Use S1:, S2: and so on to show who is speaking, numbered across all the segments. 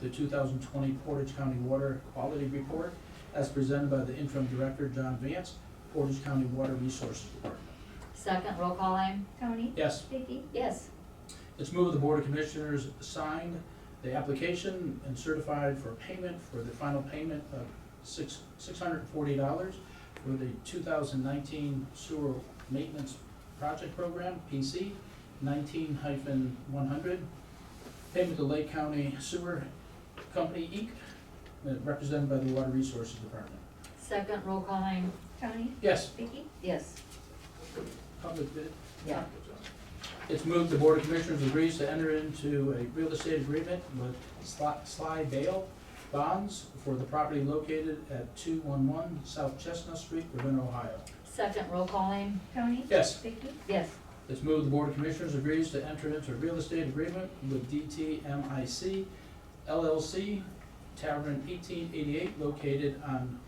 S1: the 2020 Portage County Water Quality Report as presented by the interim director, John Vance, Portage County Water Resources Department.
S2: Second, roll call aim?
S3: Tony,
S1: Yes,
S3: Vicky,
S2: Yes.
S1: it's moved the Board of Commissioners signed the application and certified for payment for the final payment of six $640 for the 2019 Sewer Maintenance Project Program, PC 19-100. Payment to Lake County Sewer Company, Inc., uh, represented by the Water Resources Department.
S2: Second, roll call aim?
S3: Tony,
S1: Yes,
S3: Vicky,
S2: Yes.
S1: public bid.
S2: Yeah.
S1: It's moved the Board of Commissioners agrees to enter into a real estate agreement with Sly- Sly Bale Bonds for the property located at 211 South Chestnut Street, Ravenna, Ohio.
S2: Second, roll call aim?
S3: Tony,
S1: Yes,
S3: Vicky,
S2: Yes.
S1: it's moved the Board of Commissioners agrees to enter into a real estate agreement with DTMIC LLC Tavern 1888 located on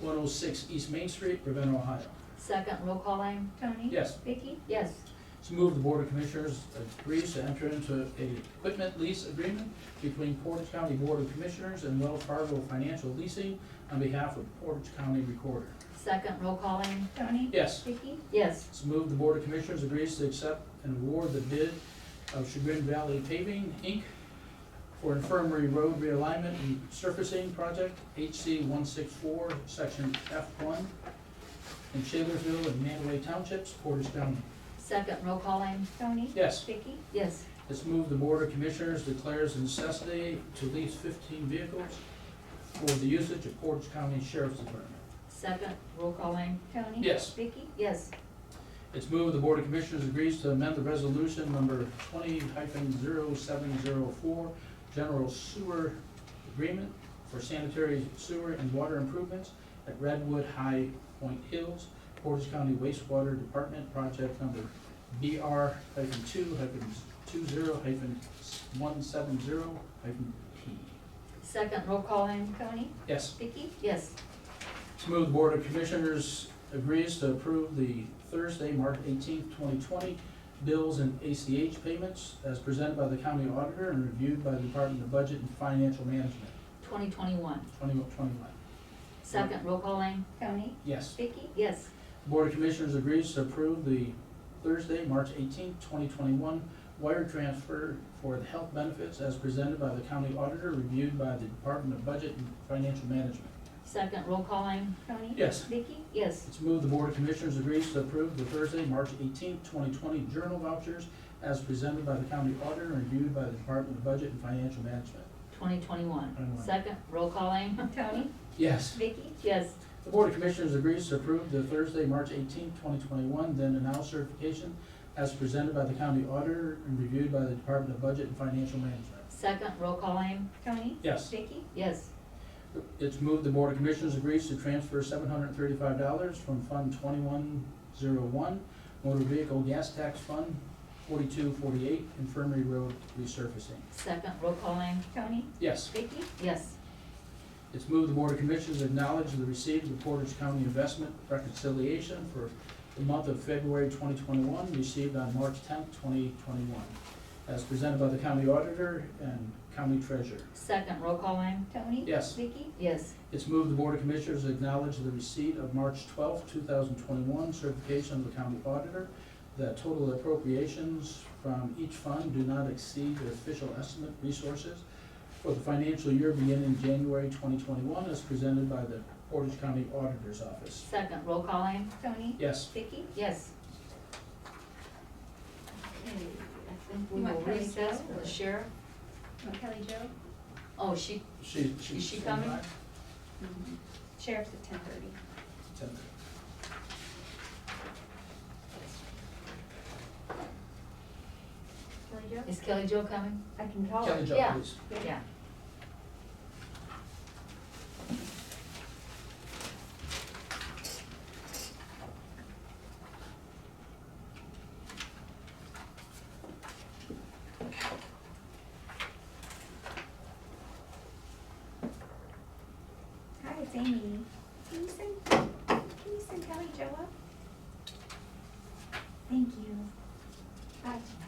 S1: 106 East Main Street, Ravenna, Ohio.
S2: Second, roll call aim?
S3: Tony,
S1: Yes.
S3: Vicky,
S2: Yes.
S1: It's moved the Board of Commissioners agrees to enter into a equipment lease agreement between Portage County Board of Commissioners and Wells Fargo Financial Leasing on behalf of Portage County Recorder.
S2: Second, roll call aim?
S3: Tony,
S1: Yes,
S3: Vicky,
S2: Yes.
S1: it's moved the Board of Commissioners agrees to accept and award the bid of Chagrin Valley Paving, Inc. for Infirmary Road Realignment and Surfacing Project, HC one six four, Section F one, in Shalerville and Manaway Townships, Portage County.
S2: Second, roll call aim?
S3: Tony,
S1: Yes.
S3: Vicky,
S2: Yes.
S1: Let's move the Board of Commissioners declares necessity to lease fifteen vehicles for the usage of Portage County Sheriff's Department.
S2: Second, roll call aim?
S3: Tony,
S1: Yes.
S3: Vicky,
S2: Yes.
S1: It's moved the Board of Commissioners agrees to amend the resolution number twenty hyphen zero seven zero four, general sewer agreement for sanitary sewer and water improvements at Redwood High Point Hills, Portage County wastewater department project number BR hyphen two hyphen two zero hyphen one seven zero hyphen P.
S2: Second, roll call aim?
S3: Tony,
S1: Yes.
S3: Vicky,
S2: Yes.
S1: To move the Board of Commissioners agrees to approve the Thursday, March eighteenth, twenty twenty, bills and ACH payments as presented by the county auditor and reviewed by the Department of Budget and Financial Management,
S2: Twenty twenty-one.
S1: twenty twenty-one.
S2: Second, roll call aim?
S3: Tony,
S1: Yes.
S3: Vicky,
S2: Yes.
S1: Board of Commissioners agrees to approve the Thursday, March eighteenth, twenty twenty-one, wire transfer for the health benefits as presented by the county auditor, reviewed by the Department of Budget and Financial Management.
S2: Second, roll call aim?
S3: Tony,
S1: Yes.
S3: Vicky,
S2: Yes.
S1: It's moved the Board of Commissioners agrees to approve the Thursday, March eighteenth, twenty twenty journal vouchers as presented by the county auditor and reviewed by the Department of Budget and Financial Management.
S2: Twenty twenty-one.
S1: 21.
S2: Second, roll call aim?
S3: Tony,
S1: Yes.
S3: Vicky,
S2: Yes.
S1: The Board of Commissioners agrees to approve the Thursday, March eighteenth, twenty twenty-one then and now certification as presented by the county auditor and reviewed by the Department of Budget and Financial Management.
S2: Second, roll call aim?
S3: Tony,
S1: Yes.
S3: Vicky,
S2: Yes.
S1: It's moved the Board of Commissioners agrees to transfer seven hundred and thirty-five dollars from Fund twenty-one zero one, Motor Vehicle Gas Tax Fund, forty-two forty-eight, Infirmary Road Resurfacing.
S2: Second, roll call aim?
S3: Tony,
S1: Yes.
S3: Vicky,
S2: Yes.
S1: It's moved the Board of Commissioners acknowledge the receipt of the Portage County Investment Reconciliation for the month of February twenty twenty-one, received on March tenth, twenty twenty-one, as presented by the county auditor and county treasurer.
S2: Second, roll call aim?
S3: Tony,
S1: Yes.
S3: Vicky,
S2: Yes.
S1: It's moved the Board of Commissioners acknowledge the receipt of March twelfth, two thousand twenty-one certification of the county auditor that total appropriations from each fund do not exceed the official estimate resources for the financial year beginning January twenty twenty-one as presented by the Portage County Auditor's Office.
S2: Second, roll call aim?
S3: Tony,
S1: Yes,
S3: Vicky,
S2: Yes. Okay, I think we
S3: You
S2: will
S3: want Kelly Jo
S2: recess with
S3: or-
S2: the sheriff.
S3: and Kelly Jo,
S2: Oh, she,
S1: she, she.
S2: Is she coming?
S3: Mm-hmm. sheriff's at ten thirty. Kelly Jo?
S2: is Kelly Jo coming?
S3: I can call
S1: Kelly
S3: her.
S1: Jo,
S2: Oh, Yeah.
S1: please.
S2: Yeah.
S3: Hi, it's Amy. Can you send, can you send Kelly Jo up? Thank you. Bye.